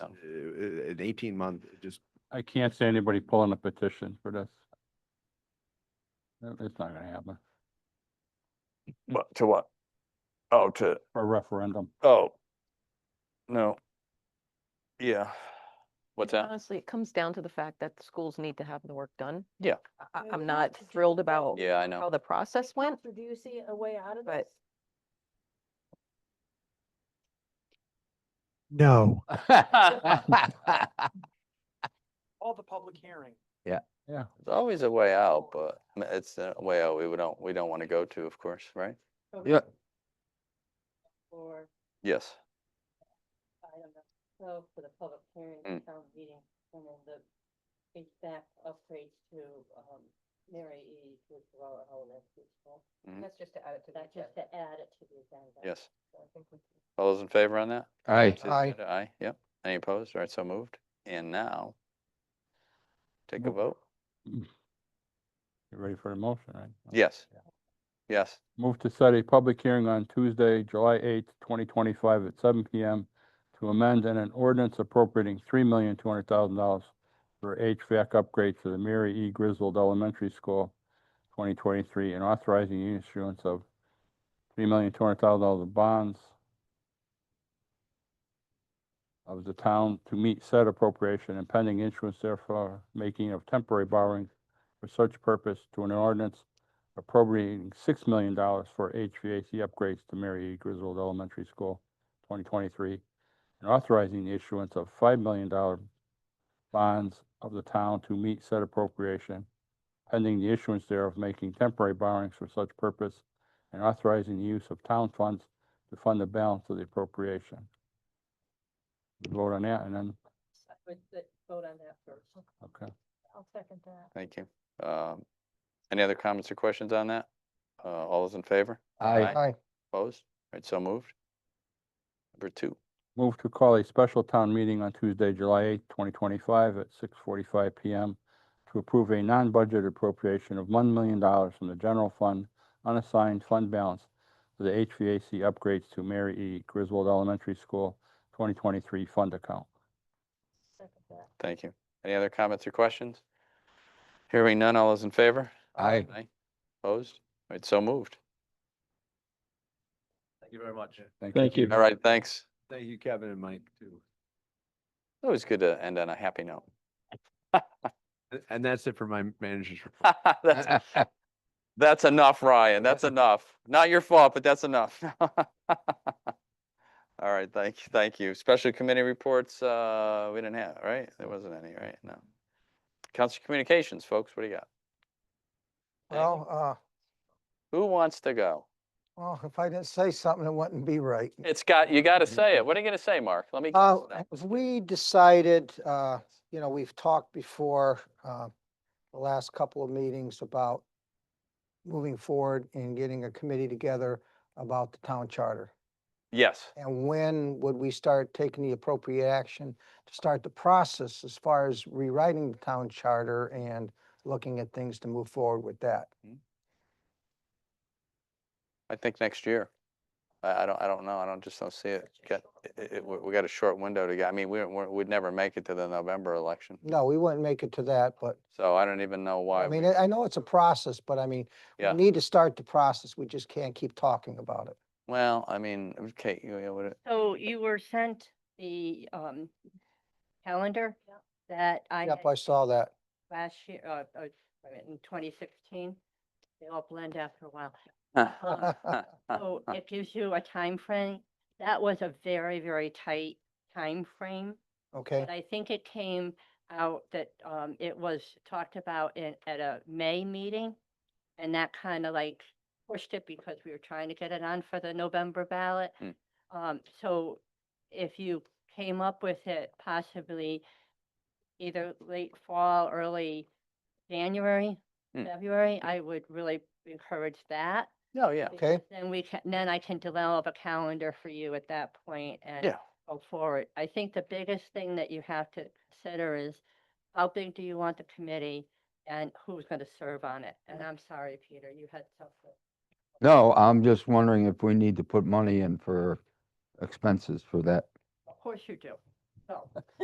uh, an eighteen month, just, I can't see anybody pulling a petition for this. No, It's not gonna happen, What, to what? Oh, to, for a referendum. oh. No. Yeah. What's that? Honestly, it comes down to the fact that the schools need to have the work done. Yeah. I- I, Yeah, I'm we not have to- thrilled about Yeah, I know. how the process went. Counselor, Do you see a way out of But- this? No, All the public hearing. There's always a way out, but m- it's a way out we would don't, we don't want to go to, of course, right? yeah, Or, Yes. I don't know, so for the public hearing, Mm. town meeting, and then the page back upgrade to, um, Mary E. with Row and all that. people. Mhm. That's just to add it to That's just to add it to the agenda. Yes. So I think we can- All those in favor on that? I, Please Aye. say that Aye, yep. Any opposed? All right, so moved. And now take a Mo- vote. You ready for the motion, right? Yes. Yes. Move to set a public hearing on Tuesday, July eighth, twenty twenty-five at seven P M to amend an ordinance appropriating three million two hundred thousand dollars for HVAC upgrades to the Mary E. Griswold Elementary School twenty twenty-three and authorizing the issuance of three million two hundred thousand dollars of bonds of the town to meet said appropriation and pending issuance therefore making of temporary borrowing for such purpose to an ordinance appropriating six million dollars for HVAC upgrades to Mary E. Griswold Elementary School, twenty twenty-three, and authorizing the issuance of five million dollar bonds of the town to meet said appropriation, pending the issuance thereof making temporary borrowings for such purpose, and authorizing the use of town funds to fund the balance of the appropriation. We Vote on that, and then, so Let's let's vote on that first. okay, I'll second that. Thank you. Um, Any other comments or questions on that? Uh, All those in favor? I, Aye. aye, Opposed? All right, so moved. Number two, Move to call a special town meeting on Tuesday, July eighth, twenty twenty-five at six forty-five PM to approve a non-budget appropriation of one million dollars from the general fund unassigned fund balance for the HVAC upgrades to Mary E. Griswold Elementary School twenty twenty-three fund account. Second that. thank you. Any other comments or questions? Hearing none, all those in favor? I. Aye. Opposed? All right, so moved. Thank you very much. Thank you. All right, thanks. Thank you, Kevin and Mike, too. Always good to end on a happy note. And- And that's it for my managers. report. That's- That's enough, Ryan. That's enough. Not your fault, but that's enough. All right, thank you, thank you. Special committee reports, uh, we didn't have, right? There wasn't any, right? No. Council Communications, folks, what do you got? Anything? well, uh, Who wants to go? well, if I didn't say something, it wouldn't be right. It's got, you gotta say it. What are you gonna say, Mark? Let me. Uh, guess now. we decided, uh, you know, we've talked before, uh, the last couple of meetings about moving forward and getting a committee together about the town charter. Yes, And when would we start taking the appropriate action to start the process as far as rewriting the town charter and looking at things to move forward with that? I think next year. I, I don't, I don't know. I don't, just don't see it. Got, it, it, we we got a short window to go. I mean, we, we, we'd never make it to the November election. No, we wouldn't make it to that, but So I don't even know why. I we- mean, I I know it's a process, but I mean, Yeah. we need to start the process. We just can't keep talking about it. Well, I mean, okay, you know, what, it- So you were sent the um calendar Yep. that I Yep, had I saw that. last year, uh, uh, wait a minute, in twenty sixteen. They all blend after a while. Uh, Um, So it gives you a time frame. That was a very, very tight time frame. Okay, But I think it came out that um it was talked about in at a May meeting. And that kind of like pushed it because we were trying to get it on for the November ballot. Mm. Um, so if you came up with it possibly either late fall, early January, Mm. February, I would really encourage that. no, Oh, yeah, Okay. because Then we can, then I can develop a calendar for you at that point and yeah, go forward. I think the biggest thing that you have to consider is how big do you want the committee and who's going to serve on it? And I'm sorry, Peter, you had something. No, I'm just wondering if we need to put money in for expenses for that. Of course you do. So.